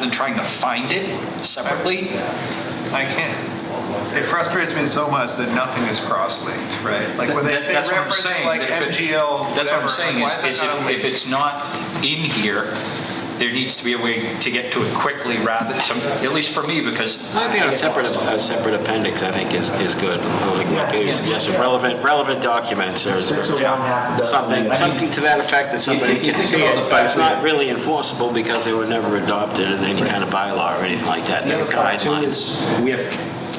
than trying to find it separately. I can't. It frustrates me so much that nothing is cross-linked, right? Like when they That- they that's what I'm reference saying, like that if it- MGL, That's what I'm whatever, saying, like, is why is that not if, linked? if it's not in here, there needs to be a way to get to it quickly rather, to- at least for me, because. I think a separate, a separate appendix, I think, is, is good. Like- Like you suggested, relevant, relevant documents or Six or one, half a dozen. something, something to that effect that somebody If you can think see about the it, but fact it's not that- really enforceable because they were never adopted as any kind of bylaw or anything like that. The They're other part too guidelines. is, we have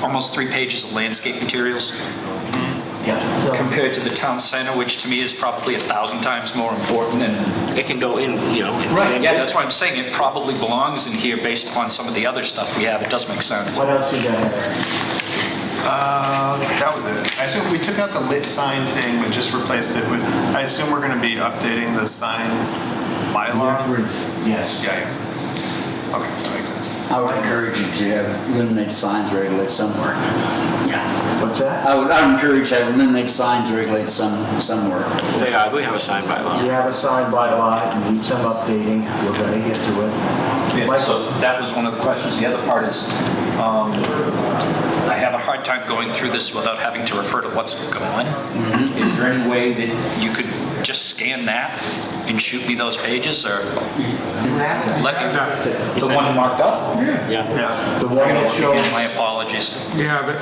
almost three pages of landscape materials Yeah. So- compared to the town center, which to me is probably a thousand times more important and It can go in, you know. in- Right, yeah, that's why I'm saying it probably belongs in here based upon some of the other stuff we have. It does make sense. What else you got Eric? Uh, that was it. I assume we took out the lit sign thing, but just replaced it with, I assume we're gonna be updating the sign bylaw? Yes. Yeah, yeah. Okay, that makes sense. I would encourage you to have illuminated signs regulated somewhere. Yeah. What's that? I would, I would encourage to have illuminated signs regulated some, somewhere. They are, we have a signed You bylaw. have a sign by law, it needs some updating, we're gonna get to it. Yeah, Michael, So that was one of the questions. The other part is, um, I have a hard time going through this without having to refer to what's gone. Is there any way that you could just scan that and shoot me those pages or you have that. let me, the one marked up? Yeah. Yeah. The one that Again, shows, my apologies. You have it.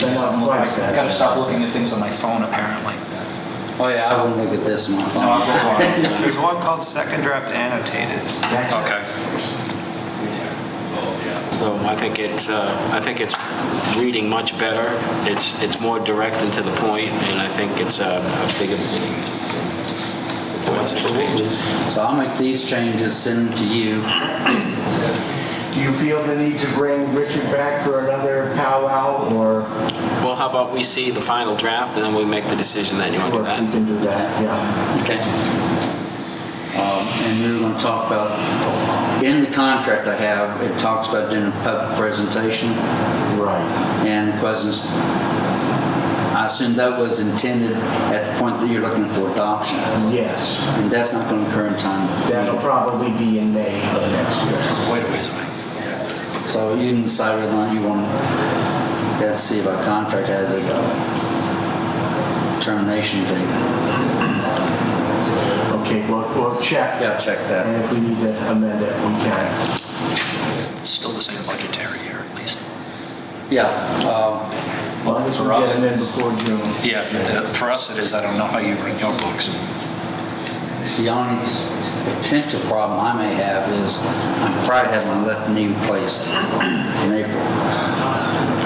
they're not quite I gotta that. stop looking at things on my phone apparently. Oh, yeah, I wouldn't look at this on my No, I'll phone. go on. There's one called second draft annotated. That's- Okay. So I think it's, uh, I think it's reading much better. It's, it's more direct and to the point, and I think it's uh, a bigger. So I'll make these changes, send them to you. Do you feel the need to bring Richard back for another powwow, or Well, how about we see the final draft, and then we make the decision that you want to do or we that? can do that, yeah? Okay. Um, And we were going to talk about, in the contract I have, it talks about doing a public presentation Right. and questions. I assume that was intended at the point that you're looking for adoption. Yes, And that's not going to occur in time. that'll probably be in May of next year. Wait a ways away. So you can decide whether or not you want, let's see if our contract has a termination date. Okay, we'll, we'll check. Yeah, check that. And if we need to amend it, we can. It's still the same budgetary year, at least. Yeah, uh, As long as we For us, get them in it's- before June. Yeah, uh, for us it is, I don't know how you bring your books. the only potential problem I may have is I probably have my left knee replaced in April.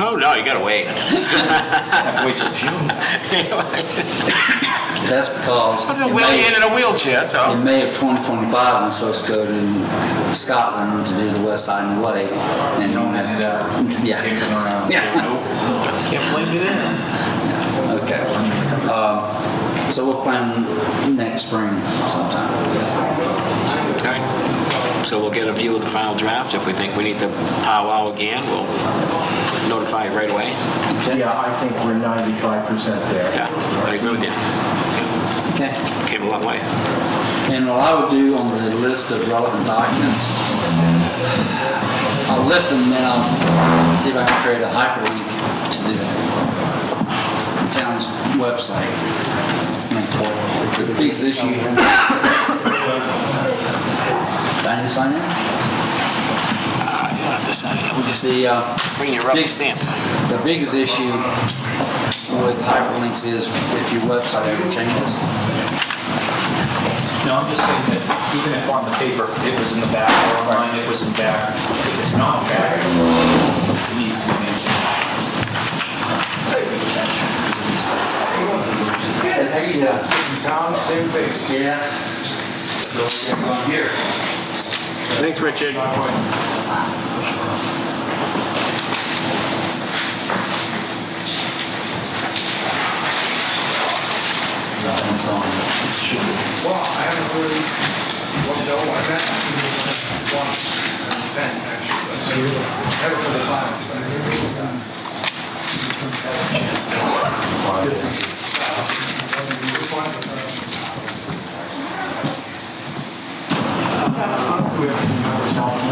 Oh, no, you gotta wait. Have to wait till June. That's because in May, in a wheelchair, that's all. in May of 2025, I'm supposed to go to Scotland to do the West Island Way. and- You don't want to do that. Yeah. Take it around. Yeah. Can't blame you there. Okay. Um, So we'll plan next spring sometime. All right. So we'll get a view of the final draft. If we think we need to powwow again, we'll notify you right away. Yeah, I think we're 95% there. Yeah, I agree with you. Okay. Came a long way. And what I would do on the list of relevant documents, I'll list them, then I'll see if I can create a hyperlink to the town's website. The biggest issue. Diane, you sign in? Ah, You don't have to sign it. We'll just The, uh, bring your rubber Big- stamp. The biggest issue with hyperlinks is if your website ever changes. No, I'm just saying that even if on the paper, it was in the back, or online, it was in back, if it's not back, it needs to be Yeah. uh, Tom, same face. Yeah. Here. Thanks, Richard. Well, I haven't really, well, no, I met once, Ben, actually, but never for the finals. but I really, um, had a chance to- Which one? Uh, with-